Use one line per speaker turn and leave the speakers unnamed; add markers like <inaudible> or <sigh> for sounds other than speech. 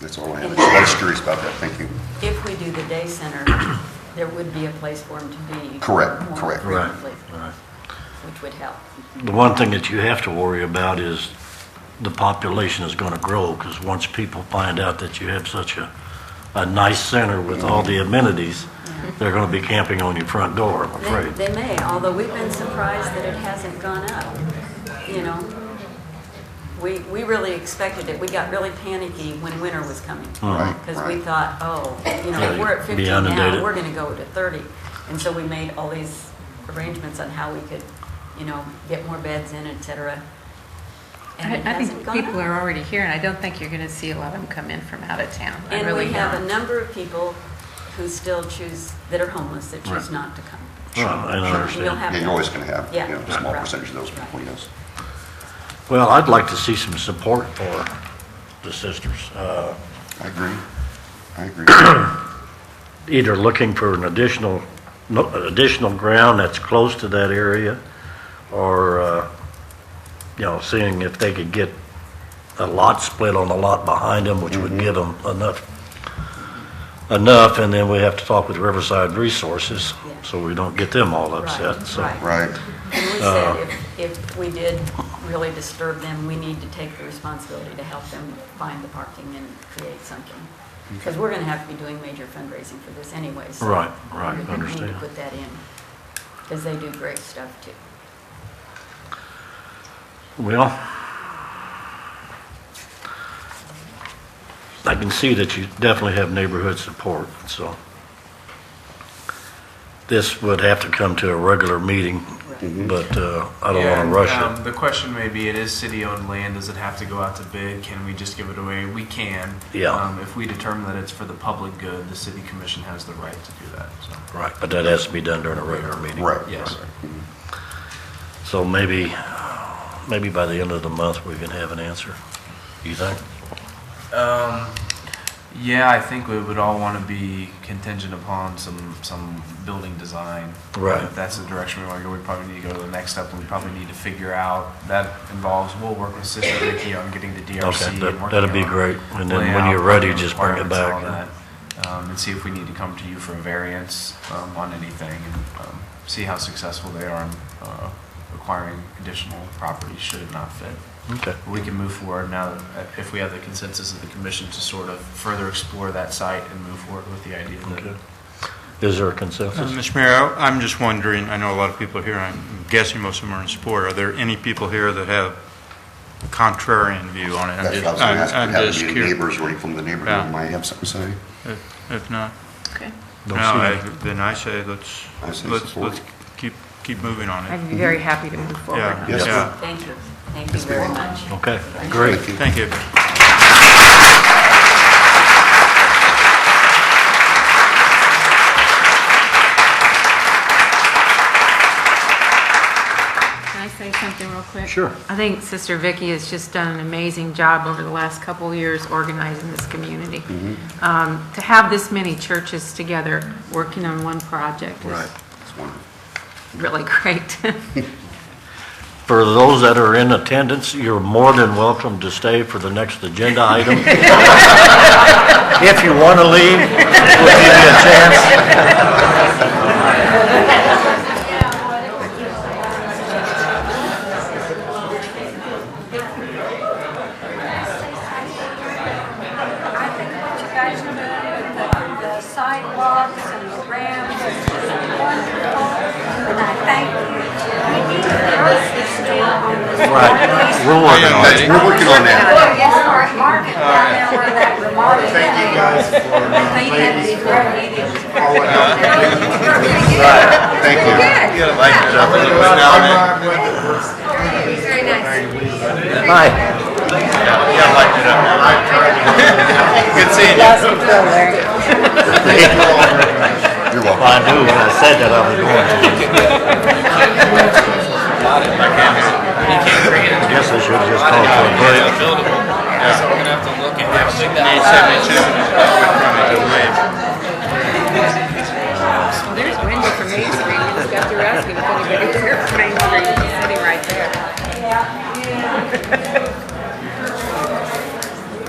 That's all I have. I was curious about that. Thank you.
If we do the day center, there would be a place for them to be.
Correct,
more
correct.
Right,
frequently,
right.
Which would help.
The one thing that you have to worry about is the population is going to grow, because once people find out that you have such a, a nice center with all the amenities, they're going to be camping on your front door, I'm
They-
afraid.
They may, although we've been surprised that it hasn't gone up, you know? We, we really expected it. We got really panicky when winter was coming.
Right,
Because we
right.
thought, oh, you
Oh. Yeah,
know,
you'd
we're at
be
15 now,
inundated.
we're going to go to 30. And so we made all these arrangements on how we could, you know, get more beds in, et cetera. And
I
it
I think
hasn't gone
people
up.
are already here, and I don't think you're going to see a lot of them come in from out of town. I
And
really
we have a
don't.
number of people who still choose, that are homeless, that choose
Right.
not to come.
Well, I don't
We'll
understand.
have.
Yeah, you're always going to have, you
Yeah,
know, a small
right.
percentage of those people, yes.
Well, I'd like to see some support for the sisters, uh,
I agree. I agree. <coughs>
either looking for an additional, no- additional ground that's close to that area, or, uh, you know, seeing if they could get a lot split on a lot behind them, which
Mm-hmm.
would give them enough, enough, and then we have to talk with Riverside Resources,
Yeah.
so we don't get them all upset,
Right,
so.
right.
Right.
And we
Uh,
said, if, if we did really disturb them, we need to take the responsibility to help them find the parking and create something. Because we're going to have to be doing major fundraising for this anyways. so
Right, right,
we need to
understand.
Put that in, because they do great stuff too.
Well, I can see that you definitely have neighborhood support, so this would have to come to a regular meeting, but uh, I don't
Yeah,
want to rush
um, The question may be, it is city-owned land, does it have to go out to bid? Can we just give it away? We can.
Yeah.
Um, If we determine that it's for the public good, the city commission has the right to do that, so.
it. Right. But that has to be done during a regular meeting.
Right.
Yes.
So maybe, maybe by the end of the month, we can have an answer, you think?
Um, yeah, I think we would all want to be contingent upon some, some building design.
Right.
If that's the direction we want to go, we probably need to go to the next step, and we probably need to figure out, that involves, we'll work with Sister Vicky on getting the DRC.
Okay,
and
that-
working
that'd be
on
great. And then when
layout,
you're ready, just bring it
requirements and all
back.
that, Um, and see if we need to come to you for a variance, um, on anything, and, um, see how successful they are in, uh, acquiring additional property should it not fit.
Okay.
We can move forward now, that- if we have the consensus of the commission to sort of further explore that site and move forward with the idea
Okay.
that.
Is there a
Uh,
Um,
consensus?
Mr. Mayor, I- I'm just wondering, I know a lot of people here, I'm guessing most of them are in support. Are there any people here that have a contrarian view on it? I'm
That's what
just-
I was going to
I'm-
ask.
I'm
Have
just
any
curious.
neighbors or any from the neighborhood
Yeah.
who might have something to say?
If- If not,
Okay.
Don't
no,
see
I-
any.
then I say let's,
I say
let's,
support.
let's keep, keep moving on it.
I'd be very happy to move forward.
Yeah,
on
Yes.
it.
yeah,
Thank you, thank you very much.
Okay, great.
Thank you.
thank you.
Can I say something real quick?
Sure.
I think Sister Vicky has just done an amazing job over the last couple of years organizing this community. Um, To have this many churches together, working on one project
Right.
is
It's wonderful.
really <laughs> great.
For those that are in attendance, you're more than welcome to stay for the next agenda item. If you want to leave, we'll give you a chance.
I think what you guys are doing with the sidewalks and the ramps is wonderful, and I thank you. We need to address this deal on this
Right, we're working on it.
We're working on that.
Yes, we're at market down there where that remark is. Thank you guys
Thank you.
Very
Hi.
nice.
You're
Well,
welcome.
I knew when I said that I was going to. Guess I should have just called for a break.
There's Wendy from Main Street, you just got through <laughs> asking if anybody here from Main Street, sitting right there.